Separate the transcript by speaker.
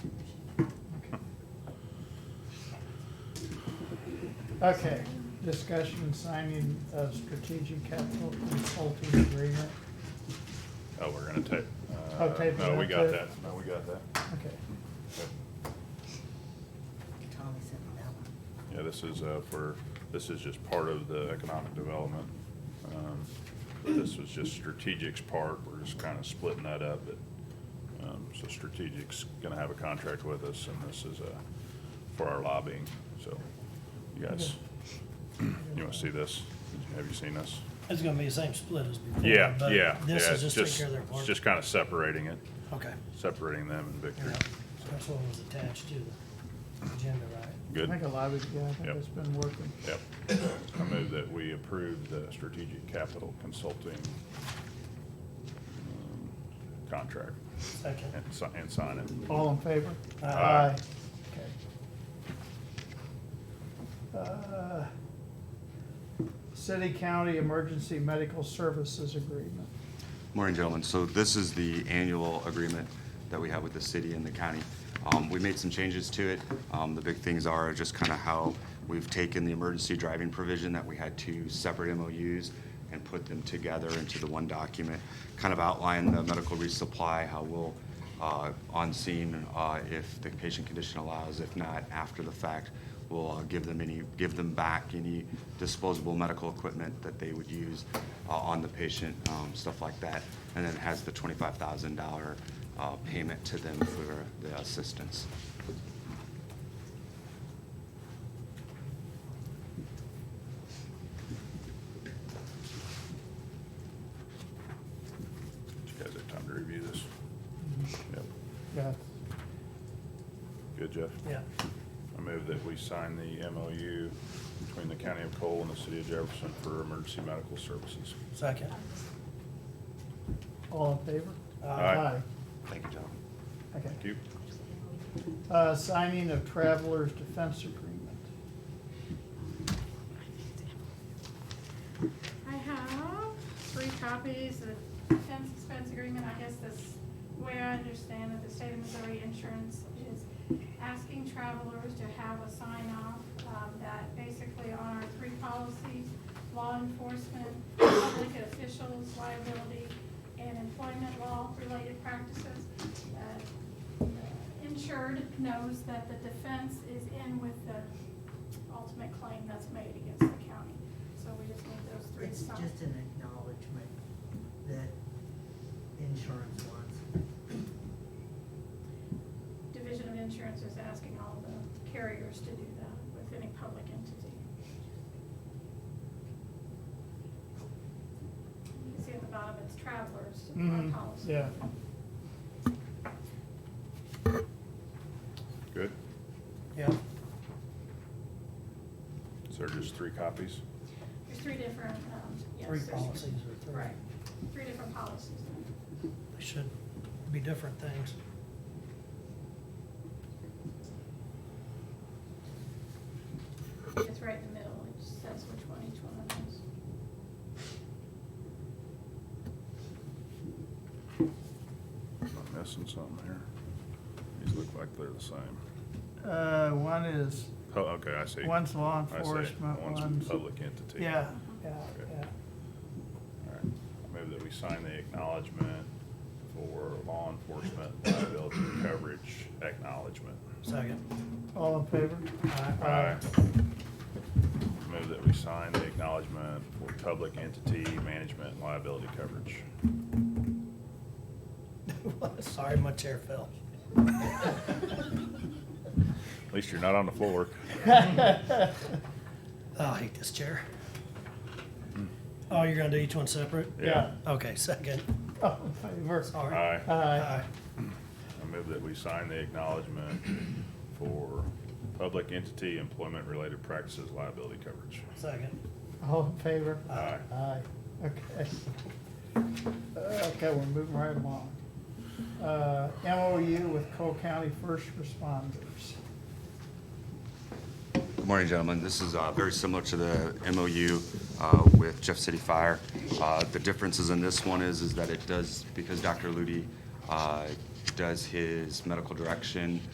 Speaker 1: Okay, discussion signing of strategic capital consulting agreement.
Speaker 2: Oh, we're gonna take.
Speaker 1: Oh, tape
Speaker 2: No, we
Speaker 1: it,
Speaker 2: got
Speaker 1: tape.
Speaker 2: that, no, we got that.
Speaker 1: Okay,
Speaker 3: Tommy sent me that one.
Speaker 2: Yeah, this is uh, for, this is just part of the economic development. Um, but This was just strategic's part, we're just kind of splitting that up, but, um, so strategic's gonna have a contract with us, and this is uh, for our lobbying, so. You guys, you wanna see this? Have you seen this?
Speaker 4: It's gonna be the same split as before.
Speaker 2: Yeah,
Speaker 4: but
Speaker 2: yeah,
Speaker 4: This
Speaker 2: yeah,
Speaker 4: is
Speaker 2: it's
Speaker 4: just take care of their
Speaker 2: It's
Speaker 4: part.
Speaker 2: just kind of separating it,
Speaker 4: Okay,
Speaker 2: separating them and
Speaker 4: yeah,
Speaker 2: Victor.
Speaker 4: So that's what was attached to the agenda, right?
Speaker 1: I
Speaker 2: Good?
Speaker 1: think a lot of, it- yeah, I think
Speaker 2: Yep.
Speaker 1: it's been working.
Speaker 2: Yep. I move that we approve the strategic capital consulting um, contract
Speaker 4: Second.
Speaker 2: and si- and sign it.
Speaker 1: All in favor?
Speaker 4: Aye.
Speaker 2: Aye.
Speaker 1: Okay. Uh, City County Emergency Medical Services Agreement.
Speaker 5: Morning, gentlemen. So this is the annual agreement that we have with the city and the county. Um, We made some changes to it. Um, The big things are just kind of how we've taken the emergency driving provision that we had two separate MOUs and put them together into the one document, kind of outline the medical resupply, how we'll, uh, on scene, uh, if the patient condition allows, if not, after the fact, we'll uh, give them any, give them back any disposable medical equipment that they would use uh, on the patient, um, stuff like that. And then it has the twenty-five thousand dollar uh, payment to them for the assistance.
Speaker 2: Did you guys have time to review this?
Speaker 1: Mm-hmm.
Speaker 2: Yep.
Speaker 1: Yeah,
Speaker 2: Good, Jeff?
Speaker 4: Yeah,
Speaker 2: I move that we sign the MOU between the County of Cole and the City of Jefferson for emergency medical services.
Speaker 4: second.
Speaker 1: all in favor?
Speaker 4: Uh,
Speaker 2: Aye.
Speaker 5: Thank you, gentlemen.
Speaker 1: Okay.
Speaker 2: Thank you.
Speaker 1: Uh, Signing of Travelers Defense Agreement.
Speaker 6: I have three copies of defense expense agreement. I guess this way I understand that the state of Missouri insurance is asking travelers to have a sign off um, that basically on our three policies, law enforcement, public officials liability, and employment law related practices. uh, Insured knows that the defense is in with the ultimate claim that's made against the county. So we just need those three
Speaker 3: It's
Speaker 6: signed.
Speaker 3: just an acknowledgement that insurance wants.
Speaker 6: Division of Insurance is asking all the carriers to do that with any public entity. You can see at the bottom, it's travelers,
Speaker 1: Mhm,
Speaker 4: Mm-hmm.
Speaker 6: our policy.
Speaker 1: Yeah.
Speaker 2: Good?
Speaker 4: Yeah,
Speaker 2: Is there just three copies?
Speaker 6: There's three different, um, yes.
Speaker 4: three
Speaker 6: there's
Speaker 4: policies or three,
Speaker 3: Right.
Speaker 6: Three different policies.
Speaker 4: they should be different things.
Speaker 6: It's right in the middle, it just says which one each one of them is.
Speaker 2: Am I missing something here? These look like they're the same.
Speaker 1: Uh, One is,
Speaker 2: Oh, okay, I see.
Speaker 1: one's law
Speaker 2: I see.
Speaker 1: enforcement,
Speaker 2: One's
Speaker 1: one's,
Speaker 2: a public entity.
Speaker 1: yeah, yeah,
Speaker 2: Okay.
Speaker 1: yeah.
Speaker 2: All right. I Move that we sign the acknowledgement for law enforcement liability coverage acknowledgement.
Speaker 4: Second.
Speaker 1: All in favor?
Speaker 2: Aye. Move that we sign the acknowledgement for public entity management liability coverage.
Speaker 4: Sorry, my chair fell.
Speaker 2: At least you're not on the floor.
Speaker 4: Oh, I hate this chair.
Speaker 2: Hmm.
Speaker 4: Oh, you're gonna do each one separate?
Speaker 2: Yeah.
Speaker 4: Okay, second.
Speaker 1: All in favor?
Speaker 4: Sorry.
Speaker 2: Aye.
Speaker 1: Aye.
Speaker 4: Aye.
Speaker 2: I move that we sign the acknowledgement for public entity employment-related practices liability coverage.
Speaker 4: Second.
Speaker 1: All in favor?
Speaker 2: Aye.
Speaker 1: Aye, okay. Uh, Okay, we're moving right along. Uh, MOU with Cole County First Responders.
Speaker 5: Good morning, gentlemen. This is uh, very similar to the MOU uh, with Jeff City Fire. Uh, The differences in this one is, is that it does, because Dr. Ludi uh, does his medical direction